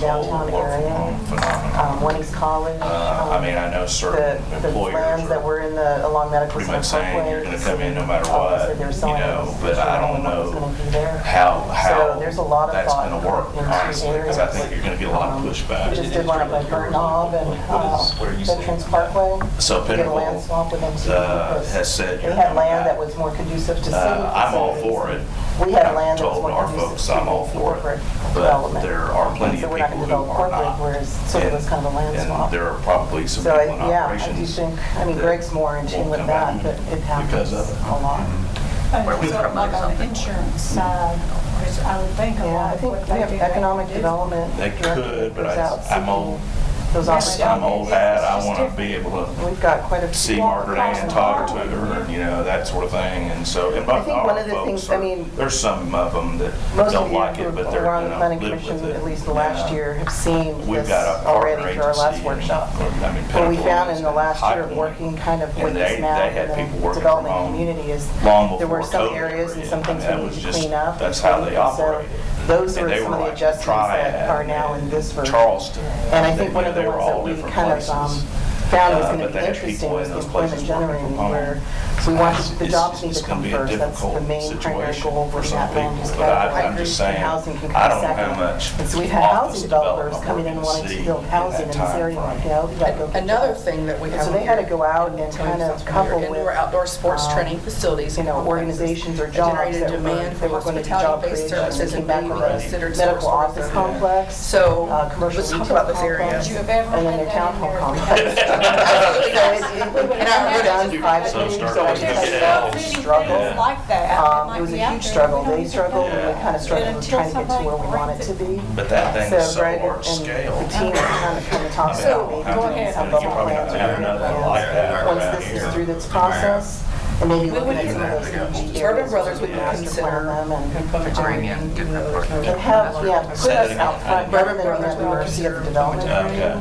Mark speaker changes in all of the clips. Speaker 1: downtown area. Um, When he's calling.
Speaker 2: Uh, I mean, I know certain
Speaker 1: The, the
Speaker 2: employers
Speaker 1: lands that
Speaker 2: are
Speaker 1: were in the, along Medical
Speaker 2: pretty
Speaker 1: Center
Speaker 2: much saying
Speaker 1: Parkway.
Speaker 2: you're gonna come in no matter what,
Speaker 1: Obviously, they're
Speaker 2: you
Speaker 1: selling it.
Speaker 2: know, but I don't
Speaker 1: Everyone's
Speaker 2: know
Speaker 1: gonna be there.
Speaker 2: how, how
Speaker 1: So there's a lot of
Speaker 2: that's
Speaker 1: thought
Speaker 2: gonna work,
Speaker 1: into
Speaker 2: honestly, because I
Speaker 1: areas.
Speaker 2: think you're gonna get a lot of
Speaker 1: Um, We
Speaker 2: pushback.
Speaker 1: just did one up by Burton Knob and uh, Veterans Parkway.
Speaker 2: So
Speaker 1: We did a land
Speaker 2: Pinnacle,
Speaker 1: swap with them. too,
Speaker 2: uh,
Speaker 1: because
Speaker 2: has said
Speaker 1: They
Speaker 2: you're
Speaker 1: had
Speaker 2: coming
Speaker 1: land
Speaker 2: back.
Speaker 1: that was more conducive to city.
Speaker 2: Uh, I'm all
Speaker 1: facilities.
Speaker 2: for it.
Speaker 1: We had
Speaker 2: I've
Speaker 1: land that was
Speaker 2: told
Speaker 1: more
Speaker 2: our
Speaker 1: conducive
Speaker 2: folks
Speaker 1: to
Speaker 2: I'm all
Speaker 1: city
Speaker 2: for it,
Speaker 1: corporate
Speaker 2: but
Speaker 1: development.
Speaker 2: there are plenty
Speaker 1: So
Speaker 2: of
Speaker 1: we're not
Speaker 2: people
Speaker 1: gonna
Speaker 2: who
Speaker 1: develop
Speaker 2: are
Speaker 1: corporate,
Speaker 2: not.
Speaker 1: whereas sort of
Speaker 2: And-
Speaker 1: it's kind of a land swap.
Speaker 2: And there are probably some
Speaker 1: So,
Speaker 2: people
Speaker 1: I-
Speaker 2: in
Speaker 1: yeah, I do
Speaker 2: operations.
Speaker 1: think, I mean,
Speaker 2: that
Speaker 1: Greg's more in tune
Speaker 2: won't
Speaker 1: with
Speaker 2: come
Speaker 1: that,
Speaker 2: out
Speaker 1: but it happens
Speaker 2: because of it.
Speaker 1: a lot.
Speaker 3: Where we
Speaker 4: So,
Speaker 3: promote
Speaker 4: like on the
Speaker 3: something.
Speaker 4: insurance side, which I would think a
Speaker 1: Yeah,
Speaker 4: lot
Speaker 1: I
Speaker 4: of
Speaker 1: think
Speaker 4: what
Speaker 1: we
Speaker 4: they do.
Speaker 1: have economic
Speaker 4: do.
Speaker 1: development.
Speaker 2: They
Speaker 1: director that
Speaker 2: could, but
Speaker 1: goes
Speaker 2: I-
Speaker 1: out
Speaker 2: I'm
Speaker 1: seeking
Speaker 2: old.
Speaker 1: Those
Speaker 2: I'm
Speaker 1: opportunities.
Speaker 2: old hat, I want to be able to
Speaker 1: We've got quite a few.
Speaker 2: see Margaret Ann, talk to her, you know, that sort of thing, and so, and
Speaker 1: I
Speaker 2: but
Speaker 1: think one
Speaker 2: our
Speaker 1: of the
Speaker 2: folks
Speaker 1: things- I
Speaker 2: are,
Speaker 1: mean,
Speaker 2: there's some of them that
Speaker 1: Most of
Speaker 2: don't
Speaker 1: you
Speaker 2: like it,
Speaker 1: who
Speaker 2: but they're,
Speaker 1: were on
Speaker 2: you
Speaker 1: the
Speaker 2: know,
Speaker 1: planning
Speaker 2: live
Speaker 1: commission,
Speaker 2: with it.
Speaker 1: at least the last
Speaker 2: Yeah.
Speaker 1: year, have seen
Speaker 2: We've
Speaker 1: this
Speaker 2: got a partner
Speaker 1: already
Speaker 2: agency.
Speaker 1: through our last
Speaker 2: in-
Speaker 1: workshop.
Speaker 2: I mean,
Speaker 1: What we
Speaker 2: Pinnacle
Speaker 1: found
Speaker 2: is
Speaker 1: in the last year,
Speaker 2: High Point.
Speaker 1: working kind of
Speaker 2: And
Speaker 1: with
Speaker 2: they-
Speaker 1: this map
Speaker 2: they had people
Speaker 1: and the
Speaker 2: working
Speaker 1: development
Speaker 2: from home
Speaker 1: community is,
Speaker 2: long
Speaker 1: there were
Speaker 2: before
Speaker 1: some
Speaker 2: COVID
Speaker 1: areas and
Speaker 2: ever
Speaker 1: some
Speaker 2: hit.
Speaker 1: things
Speaker 2: I mean,
Speaker 1: we
Speaker 2: that was
Speaker 1: needed to
Speaker 2: just-
Speaker 1: clean up.
Speaker 2: That's
Speaker 1: and
Speaker 2: how they
Speaker 1: things. So
Speaker 2: operated.
Speaker 1: Those
Speaker 2: And
Speaker 1: were
Speaker 2: they
Speaker 1: some
Speaker 2: were
Speaker 1: of the
Speaker 2: like
Speaker 1: adjustments that
Speaker 2: Triad
Speaker 1: are now in
Speaker 2: and
Speaker 1: this version.
Speaker 2: Charleston.
Speaker 1: And I think
Speaker 2: They-
Speaker 1: one
Speaker 2: you
Speaker 1: of
Speaker 2: know,
Speaker 1: the
Speaker 2: they were
Speaker 1: ones
Speaker 2: all
Speaker 1: that we
Speaker 2: different
Speaker 1: kind of
Speaker 2: places.
Speaker 1: um, found was
Speaker 2: Uh,
Speaker 1: going to
Speaker 2: but
Speaker 1: be
Speaker 2: they had
Speaker 1: interesting
Speaker 2: people
Speaker 1: was
Speaker 2: in
Speaker 1: the
Speaker 2: those
Speaker 1: employment
Speaker 2: places working
Speaker 1: generating
Speaker 2: from home.
Speaker 1: where, we wanted,
Speaker 2: It's-
Speaker 1: the
Speaker 2: it's-
Speaker 1: jobs need
Speaker 2: it's
Speaker 1: to
Speaker 2: gonna
Speaker 1: come
Speaker 2: be a
Speaker 1: first. That's the
Speaker 2: difficult
Speaker 1: main primary
Speaker 2: situation
Speaker 1: goal
Speaker 2: for
Speaker 1: for
Speaker 2: some
Speaker 1: that land
Speaker 2: people,
Speaker 1: use
Speaker 2: but I-
Speaker 1: category.
Speaker 2: I'm just
Speaker 1: And
Speaker 2: saying,
Speaker 1: housing can
Speaker 2: I
Speaker 1: come
Speaker 2: don't know
Speaker 1: second.
Speaker 2: how much
Speaker 1: And so we've had housing
Speaker 2: office development
Speaker 1: developers coming in
Speaker 2: we're gonna
Speaker 1: wanting to
Speaker 2: see
Speaker 1: build housing in
Speaker 2: at
Speaker 1: this
Speaker 2: that time
Speaker 1: area,
Speaker 2: frame.
Speaker 1: like, yeah, we gotta go. get
Speaker 5: Another
Speaker 1: jobs.
Speaker 5: thing that we have.
Speaker 1: So they had to go out and
Speaker 5: Tell you
Speaker 1: kind of
Speaker 5: something here,
Speaker 1: couple with.
Speaker 5: Indoor, outdoor sports
Speaker 1: um,
Speaker 5: training facilities.
Speaker 1: you
Speaker 5: and
Speaker 1: know,
Speaker 5: complexes
Speaker 1: organizations or
Speaker 5: that
Speaker 1: jobs
Speaker 5: generated
Speaker 1: that were-
Speaker 5: demand for
Speaker 1: that were gonna be job
Speaker 5: hospitality-based
Speaker 1: creation and
Speaker 5: services
Speaker 1: came
Speaker 5: and being
Speaker 1: back with
Speaker 5: considered
Speaker 1: medical
Speaker 5: source
Speaker 1: office
Speaker 5: of-
Speaker 1: complex.
Speaker 5: So,
Speaker 1: uh, commercial
Speaker 5: let's talk
Speaker 1: retail
Speaker 5: about this area.
Speaker 1: complex,
Speaker 4: Would you have ever
Speaker 1: And then their
Speaker 4: had
Speaker 1: town
Speaker 4: that
Speaker 1: hall
Speaker 4: in
Speaker 1: complex.
Speaker 5: Absolutely
Speaker 1: So
Speaker 5: does.
Speaker 1: it- it was
Speaker 5: And I heard
Speaker 1: done
Speaker 5: it.
Speaker 1: privately,
Speaker 2: So start
Speaker 1: so it was
Speaker 2: looking
Speaker 1: a
Speaker 2: at
Speaker 1: struggle,
Speaker 2: it.
Speaker 1: struggle.
Speaker 2: Yeah.
Speaker 4: Like that.
Speaker 1: Um, It was a huge struggle, they struggled, and we
Speaker 2: Yeah.
Speaker 1: kind of struggled
Speaker 4: And
Speaker 1: with
Speaker 4: until
Speaker 1: trying to get to
Speaker 4: somebody
Speaker 1: where we want it
Speaker 4: brings
Speaker 1: to
Speaker 4: it-
Speaker 1: be.
Speaker 2: But that thing is so
Speaker 1: Greg
Speaker 2: large
Speaker 1: and
Speaker 2: scale.
Speaker 1: The team kind of come and talk
Speaker 2: I mean, I don't
Speaker 1: about
Speaker 2: know
Speaker 1: maybe
Speaker 2: how
Speaker 4: go
Speaker 2: many
Speaker 4: ahead.
Speaker 2: people
Speaker 1: some
Speaker 2: you
Speaker 1: local
Speaker 2: probably
Speaker 1: plans.
Speaker 2: don't have nothing like that
Speaker 1: Once
Speaker 2: around
Speaker 1: this
Speaker 2: here.
Speaker 1: is through this process, and maybe looking at some of those energy areas.
Speaker 5: Urban Brothers would
Speaker 1: we can master
Speaker 5: consider
Speaker 1: plan them and,
Speaker 5: Bring
Speaker 1: um,
Speaker 5: in
Speaker 1: And have, yeah, put
Speaker 2: Say that
Speaker 1: us out
Speaker 2: again.
Speaker 1: front, rather than
Speaker 5: Urban
Speaker 1: being at the
Speaker 5: Brothers
Speaker 1: mercy of the
Speaker 5: would
Speaker 1: development.
Speaker 2: Okay.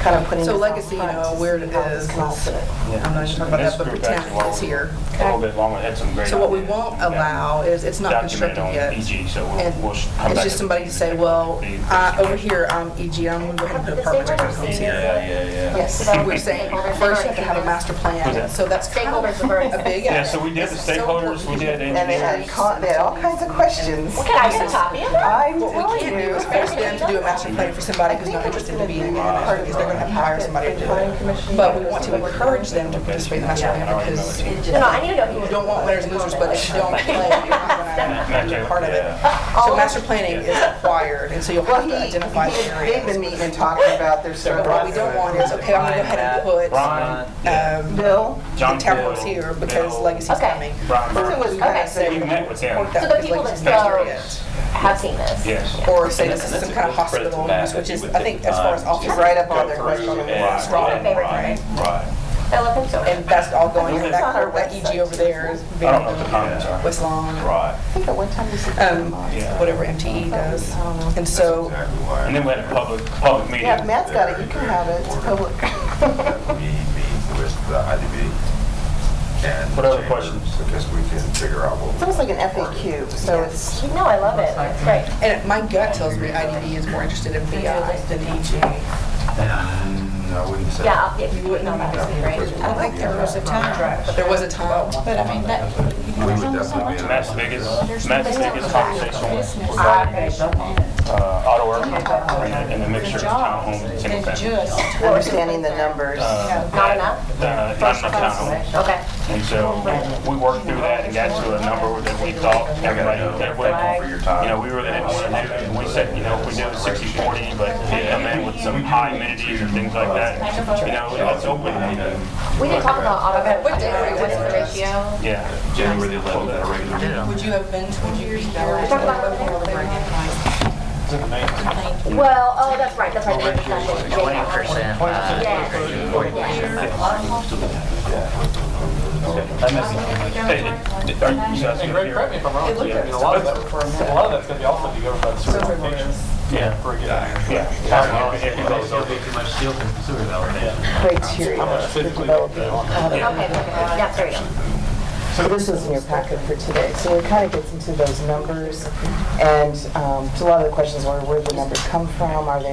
Speaker 1: Kind of putting.
Speaker 5: So
Speaker 1: us out
Speaker 5: legacy, you
Speaker 1: front
Speaker 5: know,
Speaker 1: to
Speaker 5: where
Speaker 1: see
Speaker 5: it
Speaker 1: how this
Speaker 5: is,
Speaker 1: can all
Speaker 5: is-
Speaker 1: fit.
Speaker 5: I'm not even talking about that, but
Speaker 6: Let's go back to
Speaker 5: pretend
Speaker 6: what
Speaker 5: it's
Speaker 6: we-
Speaker 5: here.
Speaker 6: A little bit longer, had some great.
Speaker 5: So what we
Speaker 6: ideas.
Speaker 5: won't
Speaker 6: We've got
Speaker 5: allow is, it's not
Speaker 6: documented
Speaker 5: constructed
Speaker 6: on
Speaker 5: yet.
Speaker 6: EG, so we'll-
Speaker 5: And
Speaker 6: we'll sh- come
Speaker 5: it's
Speaker 6: back
Speaker 5: just
Speaker 6: and-
Speaker 5: somebody to say, well, I, over here, I'm EG, I'm gonna put apartment rentals here.
Speaker 2: Yeah, yeah, yeah.
Speaker 5: Yes, we're saying, first you have to have a master
Speaker 6: Who's
Speaker 5: plan,
Speaker 6: that?
Speaker 5: so that's kind of
Speaker 4: Stakeholders are very-
Speaker 5: a big.
Speaker 6: Yeah, so we did the
Speaker 5: It's so
Speaker 6: stakeholders, we
Speaker 5: important.
Speaker 6: did
Speaker 1: And they
Speaker 6: engineers.
Speaker 1: had, con- they had all kinds of questions.
Speaker 7: Can I get a copy of that?
Speaker 1: I'm
Speaker 5: What we can't do is force them to do a master plan for somebody who's not interested in being in it, because they're gonna have to hire somebody to do it. But we want to encourage them to participate in the master plan, because you
Speaker 7: No, no, I need to know who.
Speaker 5: don't want winners and losers, but if you don't play, you're not gonna be a part of it.
Speaker 2: Yeah.
Speaker 5: So master planning is required, and so you'll
Speaker 1: Well,
Speaker 5: have
Speaker 1: he,
Speaker 5: to identify the
Speaker 1: he- they've been
Speaker 5: areas.
Speaker 1: meeting and talking about their
Speaker 5: But what we
Speaker 1: struggles.
Speaker 5: don't want is, okay, I'm gonna go ahead and put,
Speaker 6: Brian,
Speaker 5: um,
Speaker 1: Bill,
Speaker 5: the
Speaker 6: John
Speaker 5: townhomes
Speaker 6: Hill,
Speaker 5: here, because
Speaker 6: Bill,
Speaker 5: legacy's
Speaker 7: Okay.
Speaker 5: coming.
Speaker 6: Brian
Speaker 1: since it was
Speaker 6: Burke.
Speaker 1: kind of
Speaker 5: Okay.
Speaker 6: We
Speaker 1: said,
Speaker 6: met with him,
Speaker 5: Work that
Speaker 7: So the
Speaker 5: with
Speaker 7: people
Speaker 5: legacy's
Speaker 7: that
Speaker 5: master
Speaker 7: go-
Speaker 5: yet.
Speaker 7: Have seen this.
Speaker 6: yes.
Speaker 5: Or say this is some kind of hospital use, which is, I think, as far as office.
Speaker 1: right up on
Speaker 2: Go
Speaker 1: their
Speaker 2: through
Speaker 1: question.
Speaker 2: and-
Speaker 5: It's wrong.
Speaker 2: and- Right, right.
Speaker 7: I love them so much.
Speaker 5: And that's all going, in
Speaker 1: It's on
Speaker 5: that,
Speaker 1: our
Speaker 5: cor- that EG over there is
Speaker 6: I don't know what the
Speaker 5: very,
Speaker 6: comments are.
Speaker 5: West Lawn,
Speaker 2: Right.
Speaker 1: I think at one time we said.
Speaker 5: um,
Speaker 6: Yeah.
Speaker 5: whatever MTE does. And so,
Speaker 6: And then we had a public, public meeting.
Speaker 1: Yeah, Matt's got it, you can have it, it's public.
Speaker 8: We meet with the IDB and.
Speaker 6: What other
Speaker 8: chambers
Speaker 6: questions?
Speaker 8: Because we can figure out what.
Speaker 1: It's almost like an FAQ, so it's,
Speaker 7: No, I love it. It's great.
Speaker 5: and my gut tells me IDD is more interested in BI than E EG.
Speaker 8: No, Mm, I wouldn't say.
Speaker 7: Yeah, I'll- if you wouldn't know that, would be great.
Speaker 8: Because
Speaker 4: I think there was a time drive,
Speaker 5: There was a time,
Speaker 4: but I mean, that,
Speaker 8: We would definitely be. in
Speaker 6: Matt's biggest, Matt's biggest conversation was
Speaker 7: Business.
Speaker 6: uh, auto work and and the mixture of townhomes and single
Speaker 4: than
Speaker 6: family.
Speaker 4: just.
Speaker 1: understanding the numbers.
Speaker 6: Uh,
Speaker 7: Not enough?
Speaker 6: Uh, not enough townhomes.
Speaker 7: Okay.
Speaker 6: And so we worked through that and got to a number that we thought everybody,
Speaker 2: Thank you for your time.
Speaker 6: everybody, you know, we really didn't want to do. And we said, you know, if we do sixty forty, but we come in with some high amenities or things like that, you know, that's open, you know,
Speaker 7: We didn't talk about auto.
Speaker 5: What day are we
Speaker 7: What's the
Speaker 5: doing this?
Speaker 7: ratio?
Speaker 6: yeah.
Speaker 2: January the 11th, at a regular meeting.
Speaker 5: would you have been, would you be
Speaker 7: Talk about
Speaker 5: here?
Speaker 7: over there.
Speaker 6: Thank
Speaker 7: Well, oh, that's right, that's right. they just got it.
Speaker 4: twenty percent.
Speaker 7: Yeah.
Speaker 6: you. Are you
Speaker 9: And
Speaker 6: guys gonna
Speaker 9: Greg,
Speaker 6: be
Speaker 9: correct me
Speaker 6: here?
Speaker 9: if I'm wrong, but I mean, a lot of that, a lot of that's gonna be also governed by the sewer allocations
Speaker 6: Yeah,
Speaker 9: for a given.
Speaker 6: yeah. If it goes over.
Speaker 1: criteria for developing.
Speaker 7: Okay, perfect. Yeah, there you go.
Speaker 1: So this was in your packet for today. So it kind of gets into those numbers. And um, so a lot of the questions were, where did the numbers come from? Are they